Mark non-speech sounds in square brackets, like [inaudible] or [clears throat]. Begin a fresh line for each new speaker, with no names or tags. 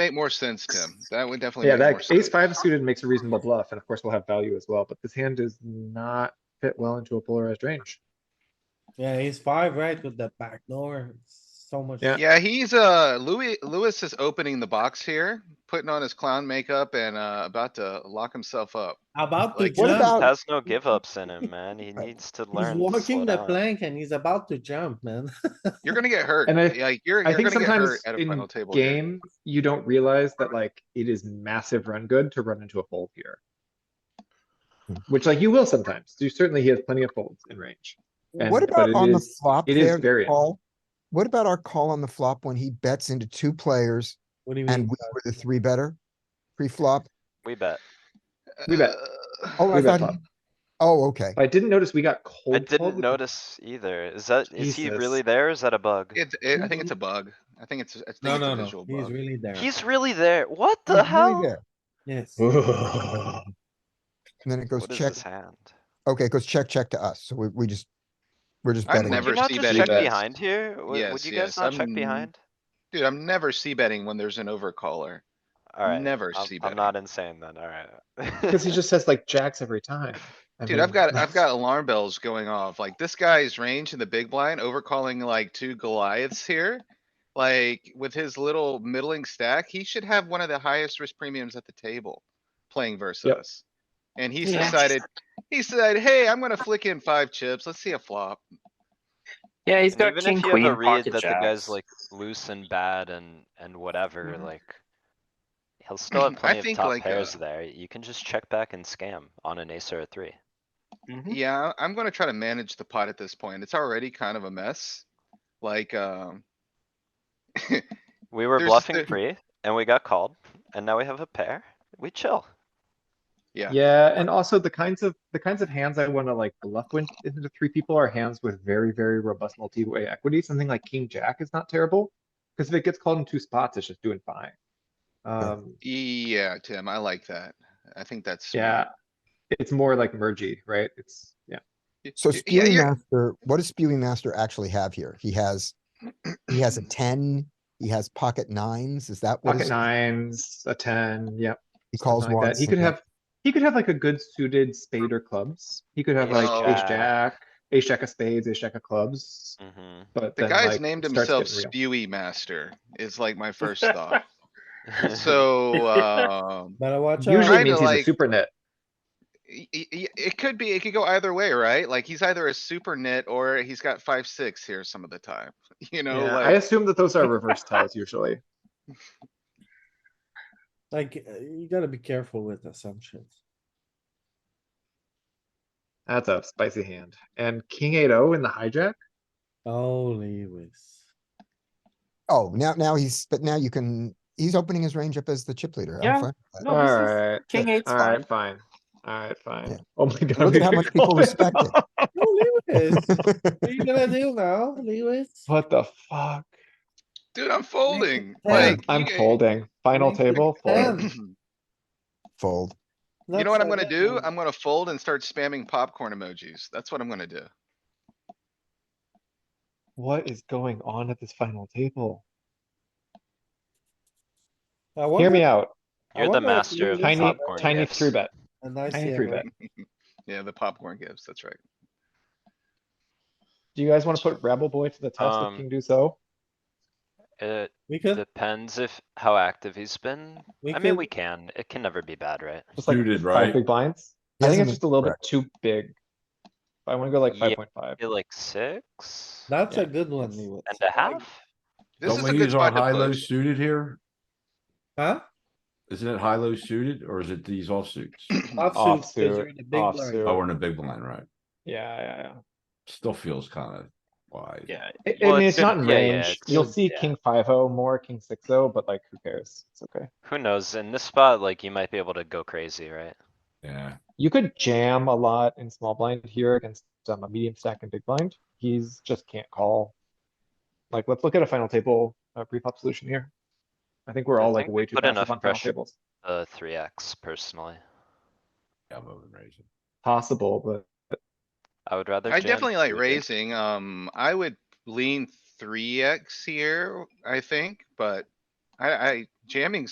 Make more sense, Tim. That would definitely.
Yeah,
make more
that
sense.
ace five suited makes a reasonable bluff, and of course we'll have value as well, but this hand does not fit well into a polarized range.
Yeah, he's five, right, with the backdoor, so much.
Yeah.
Yeah, he's, uh, Louis, Lewis is opening the box here, putting on his clown makeup and, uh, about to lock himself up.
About to
Like,
He
What
jump,
about-
just has no give ups in him, man. He needs to
he's
learn. to slow
walking the
down.
plank and he's about to jump, man. [laughs]
You're gonna get hurt.
And I-
Like, you're,
I
you're
think
gonna get
sometimes
hurt at a
in
final table. here.
game, you don't realize that like it is massive run good to run into a fold here. Which like you will sometimes. You certainly he has plenty of folds in range. And-
What
but
about
it
on the
is-
flop
it is
there, the
variant.
call? What about our call on the flop when he bets into two players
Mm.
What do you
and
mean?
we were the three better? Pre-flop?
We bet.
We bet.
Uh,
Oh, I
We bet
thought,
flop.
oh, okay.
I didn't notice we got cold.
I
called
didn't
with the-
notice either. Is that, is he
Jesus.
really there? or Is that a bug?
It, it, I think it's a bug. I think it's, I think
No,
it's
no,
a
no,
visual
he's
bug.
really there.
He's really there. What
He's
the
really
hell?
there.
Yes,
And then it goes
What is
check,
this hand?
okay, it goes check, check to us, so we, we just, we're just
I
betting.
Would
never
you not
see
just
betting
check
bets.
behind here? Would- Would
Yes,
you
yes,
guys not check
I'm-
behind?
Dude, I'm never c betting when there's an overcaller.
Alright.
never
I'm-
see
I'm
betting.
not insane then, [laughs] alright.
[laughs] Cause he just has like jacks every time. I
Dude, I've
mean, [laughs]
got, I've got alarm bells going off. Like this guy's range in the big blind overcalling like two Goliaths here. Like with his little middling stack, he should have one of the highest risk premiums at the table playing versus us. And he's
Yeah.
decided, he said, hey, I'm gonna flick in five chips. Let's see a flop.
Yeah, he's
And
got
even if
king,
you have
queen,
a read
pocket
that the guy's
jacks.
like loose and bad and, and whatever,
Mhm.
like. He'll still have
[laughs] I
plenty of
think
top
like,
pairs
uh,
there. You can just check back and scam on an ace or a three.
Mhm.
Yeah, I'm gonna try to manage the pot at this point. It's already kind of a mess. Like, um.
We were
There's
bluffing
the-
free and we got called and now we have a pair. We chill.
Yeah.
Yeah, and also the kinds of, the kinds of hands I wanna like bluff when into three people are hands with very, very robust multi-way equity. Something like king jack is not terrible. Cause if it gets called in two spots, it's just doing fine. Um,
Yeah, Tim, I like that. I think that's. smart.
yeah. It's more like mergey, right? It's, yeah.
Y-
So
y- yeah,
Spewing
you're-
Master, what does Spewing Master actually have here? He has, he has a ten, he has pocket nines, is that what
Pocket
his-
nines, a ten, yep.
he calls
something like that.
once?
He could
okay.
have, he could have like a good suited spade or clubs. He could have
Ace
like ace
jack.
jack, ace jack of spades, ace jack of clubs,
Mhm.
but.
Mm-hmm. The
then,
guy's
like,
named
it
himself
starts getting real.
Spewy Master is like my
[laughs]
first thought. So, um,
better watch
Usually
out.
Trying to,
means he's a
like-
super net.
y- y- y- it could be, it could go either way, right? Like he's either a super nit or he's got five, six here some of the time, [laughs] you know,
Yeah, I
like.
assume that
[laughs]
those are reverse ties usually.
Like, uh, you gotta be careful with assumptions.
That's a spicy hand. And king eight O in the hijack?
Oh, Lewis.
Oh, now, now he's, but now you can, he's opening his range up as the chip leader. I'm
Yeah.
fine with that.
No, this is-
Alright,
King eight's fine.
alright, fine. Alright,
Yeah.
fine. Oh my god.
Look
we
at how
could
much people
call it
respect it.
off.
Oh, [laughs] Lewis, what
[laughs]
are you gonna do now, Lewis?
[laughs] What the fuck?
Dude, I'm folding,
Yeah,
like.
I'm
oh.
you-
folding. Final
Make the
table, fold.
ten.
[clears throat] You
Fold.
know what I'm gonna do? I'm gonna fold and start spamming popcorn emojis. That's what I'm gonna do.
What is going on at this final table?
I
Hear
wonder-
me out.
I
[laughs] You're the
wonder if
master of the
Lewis-
Tiny,
popcorn
tiny
gifts.
three bet,
A nice
tiny
hand,
three
right?
bet.
Yeah, the popcorn gives, that's right.
Do you guys wanna put Rebel Boy to the test
Um,
with king deuce O?
It
We could,
depends if, how active he's been.
we
I mean, we
could,
can. It can never be bad, right?
Just like
Suited,
five
right?
big blinds?
He
I think
hasn't
it's
been-
just a little bit too big. I wanna go like
Yeah.
five point five.
Be like six and
that's a good one, Lewis.
a half?
This is
Don't
a
we
good
use our
spot to
high low
push.
suited here?
Huh?
Isn't it high low suited or is it these offsuits?
Offsuit, 'cause you're in the big
Offsuit,
blind.
offsuit.
Oh, we're in a big blind, right?
Yeah, yeah, yeah.
Still feels kinda wide.
Yeah.
I- I
Well,
mean,
it's
it's not in
gonna- yeah, yeah,
range.
it's-
You'll see
yeah.
king five oh more, king six oh, but like, who cares? It's okay.
Who knows? In this spot, like you might be able to go crazy, right?
Yeah,
You could jam a lot in small blind here against um, a medium stack and big blind. He's just can't call. Like, let's look at a final table, uh pre-flop solution here. I think we're
I
all like
think
way
we
too
put enough
passive on final
pressure.
tables.
Uh, three X personally.
yeah, I'm over raising.
Possible, but
I would rather.
I
jam
definitely like
three big.
raising, um, I would lean three X here, I think, but I, I jamming